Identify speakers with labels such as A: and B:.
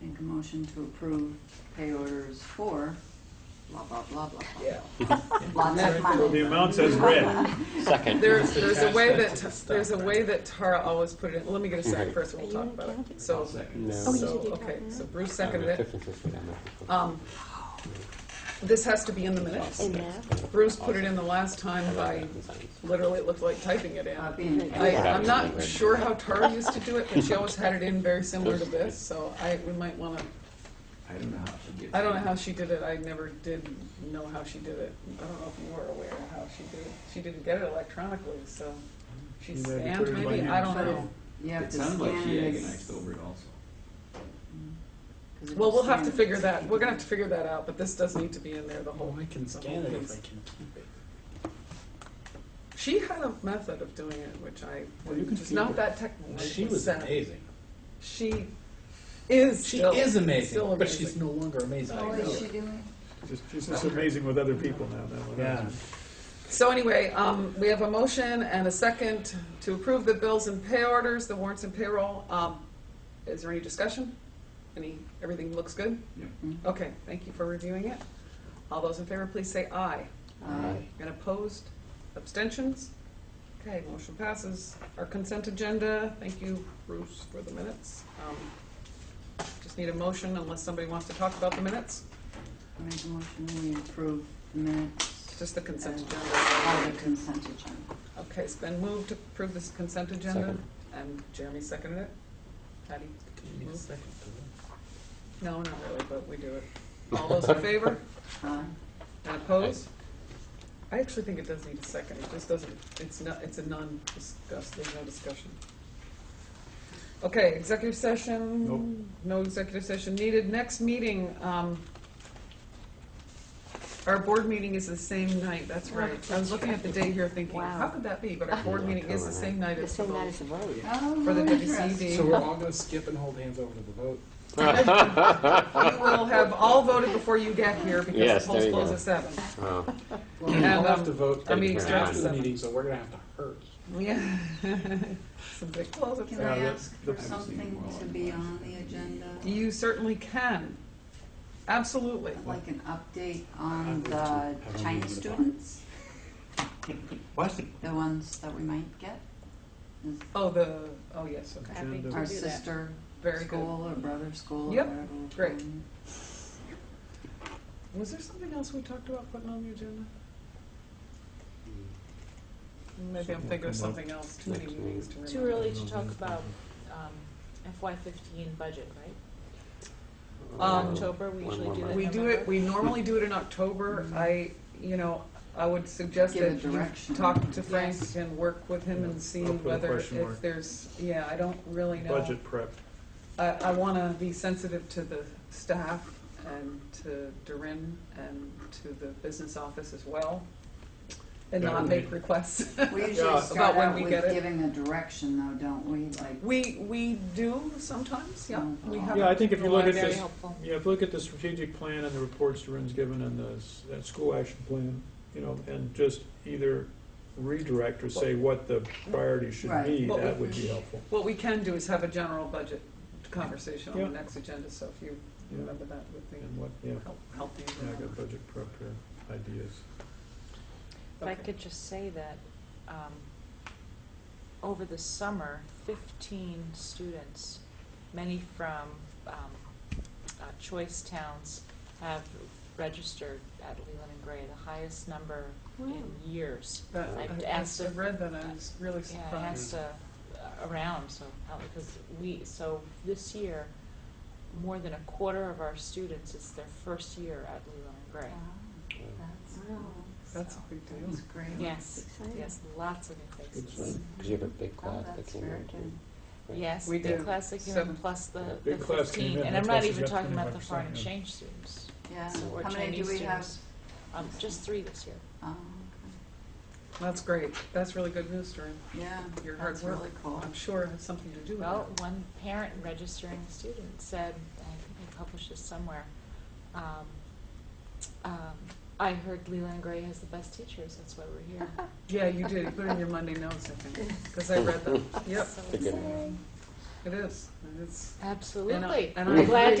A: make a motion to approve pay orders for blah, blah, blah, blah, blah.
B: Yeah.
A: Lots of
C: Well,
A: money.
C: the amount says red.
D: Second.
B: There's, there's a way
E: Attach that
B: that,
E: to the stock,
B: there's a way
E: right.
B: that Tara always put it in, let me get a second
D: Right.
B: first, and we'll
F: Are
B: talk
F: you
B: about
F: gonna
B: it. So,
E: Second.
D: No.
F: Oh, you
B: so,
F: did, you
B: okay,
F: talked
B: so
F: about
B: Bruce seconded it.
D: Differences with them.
B: Um, This has to be in the minutes.
F: In there?
B: Bruce put it in the last time by, literally, it looked like typing it in.
A: Uh, being paid
B: I,
A: back.
B: I'm not sure how Tara used to do it, but she always had it in very similar to this, so I, we might wanna,
E: I don't know how to get.
B: I don't know how she did it, I never did know how she did it. I don't know if you were aware of how she did it, she didn't get it electronically, so she
C: You had to put
B: scanned
C: it by
B: maybe,
C: hand.
B: I don't
A: But if
B: know.
A: You have
E: It
A: to
E: sounded like
A: scan
E: she
A: it, it's-
E: agonized over it also.
A: 'cause if
B: Well,
A: you
B: we'll have
A: scan
B: to
A: it,
B: figure
A: it's
B: that, we're gonna have to
A: taken.
B: figure that out, but this does need to be in there, the whole.
E: Oh, I can
B: the whole
E: scan it if
B: piece.
E: I can keep it.
B: She had a method of doing it, which I,
E: Well, Oh, you can
B: was
E: keep
B: not
E: it.
B: that technical.
E: She was amazing.
B: She is
E: She
B: still-
E: is
B: still
E: amazing, but
B: amazing.
E: she's no longer amazing.
A: Oh,
E: I know
A: is she
E: it.
A: doing?
C: Just- She's just amazing with other people now. now and
E: Yeah.
C: then.
B: So anyway, um, we have a motion and a second to approve the bills and pay orders, the warrants and payroll. Um, is there any discussion? Any, everything looks good?
E: Yep.
B: Okay, thank you for reviewing it. All those in favor, please say aye.
A: Uh,
B: And opposed? Abstentions? Okay, motion passes. Our consent agenda, thank you, Bruce, for the minutes. Um, Just need a motion unless somebody wants to talk about the minutes,
A: I Make a motion, we approve the minutes.
B: just the consent
A: and
B: agenda.
A: All the consent agenda.
B: Okay, it's been moved to approve this consent agenda,
D: Second.
B: and Jeremy seconded it. Patty?
E: You need a
B: moved.
E: second, don't
B: No, not really, but we do it. All those in favor
A: Uh,
B: and opposed? I actually think it does need a second, it just doesn't, it's not, it's a non-discuss, there's no discussion. Okay, executive session? No executive session needed. Next meeting, um, our board meeting is the same night, that's right. I was looking at the day here thinking,
F: Wow.
B: how could that be? But our board meeting is the same night
F: The
B: as the
F: same night
B: vote.
F: as the vote.
A: oh,
B: For the
A: interesting.
E: we?
B: WCD.
E: So we're all gonna skip and hold hands over to the vote.
B: We will have all voted before you get here because
D: Yes,
B: the
D: there
B: polls
D: you
B: close
D: go.
B: at seven.
D: Oh,
E: Well,
B: And,
E: I'll have
B: um,
E: to vote
B: I mean,
D: it's
E: after the
B: seven.
E: meeting, so we're gonna have to hurry.
B: Yeah. Since they close at
A: Can
B: seven.
A: I
C: Uh, the-
A: ask for
C: the-
A: something to be on the agenda?
B: You certainly can. Absolutely.
A: Like an update on the Chinese students,
E: What?
A: the ones that we might get? Is
B: Oh, the, oh, yes, okay.
F: Happy
C: Agenda.
F: to
A: Our
F: do that.
A: sister
B: Very good.
A: school or brother school or
B: Yep,
A: whatever. we're
B: great.
A: calling
B: Was there something else we talked about putting on the agenda?
C: Hmm.
B: Maybe I'm thinking of something else, too many meetings to remember.
G: Too early to talk about um, FY15 budget, right?
B: Um,
G: October, we
D: One
G: usually
D: more
G: do that.
D: month.
B: We do it,
G: November.
B: we normally do it in October.
C: Mm-hmm.
B: I, you know, I would suggest
A: Give a
B: that you
A: direction.
B: talk to Frank
G: Yes.
B: and work with him
C: Yeah,
B: and see
C: I'll put a
B: whether
C: question
B: if
C: mark.
B: there's, yeah, I don't really know.
C: Budget prep.
B: I, I want to be sensitive to the staff and to Durin and to the business office as well, and
C: That
B: not
C: would
B: make
C: be-
B: requests.
A: We usually
C: About
A: start
B: when
A: out
B: we
A: with
B: get it.
A: giving a direction though, don't we? Like,
B: We, we do sometimes, yeah.
C: Mm-hmm.
B: We have-
C: Yeah, I think if you
G: Well,
C: look at
G: Very
C: this,
G: helpful.
C: yeah, if you look at the strategic plan and the reports Durin's given and the, s- that school action plan, you know, and just either redirect or say what the priorities should
A: Right.
C: be,
B: What
C: that
B: we-
C: would be helpful.
B: What we can do is have a general budget conversation on the
C: Yeah.
B: next agenda, so if you
C: Yeah.
B: remember that would be
C: And what, yeah,
B: help, help you
C: yeah, I
B: remember.
C: got budget prep here, ideas.
G: If I
B: Okay.
G: could just say that um, over the summer, 15 students, many from um, uh, choice towns, have registered at Leland and Gray, the highest number in
B: Oh.
G: years.
B: But
G: I've
B: I-
G: asked
B: I
G: if-
B: read that, I was really
G: Yeah, I
B: surprised.
G: asked uh, around, so, uh, because we, so this year, more than a quarter of our students, it's their first year at Leland and Gray.
A: Wow, that's cool.
B: That's a
G: So,
B: big deal.
A: That's great.
G: Yes,
F: Exciting.
G: yes, lots of new faces.
D: Because you have a big
A: Oh,
D: class that
A: that's
D: came
A: very
D: in.
A: good.
D: right?
G: Yes,
B: We
G: big
B: do.
G: class that came
B: Seven.
G: in, plus the
D: Yeah.
G: the
C: Big class came in,
G: fifteen, and I'm
C: that's
G: not
C: why
G: even
C: she's got
G: talking about the
C: 25%
G: foreign
C: in.
G: exchange students,
A: Yeah,
G: so- or
A: how many
G: Chinese
A: do we have?
G: students. Um, just three this year.
A: Oh,
B: That's great, that's really good news, Durin.
A: okay. Yeah,
B: Your hard
A: that's
B: work.
A: really cool.
B: I'm sure it has something to do with
G: Well,
B: it.
G: one parent registering student said, and I think I published this somewhere, um, um, I heard Leland Gray has the best teachers, that's why we're here.
B: Yeah, you did, you put it in your Monday notes, I think, because I read them. Yep,
D: It's a
G: So
D: good
G: exciting.
D: one.
B: it is. It's,
G: Absolutely.
B: And I- and I
G: Glad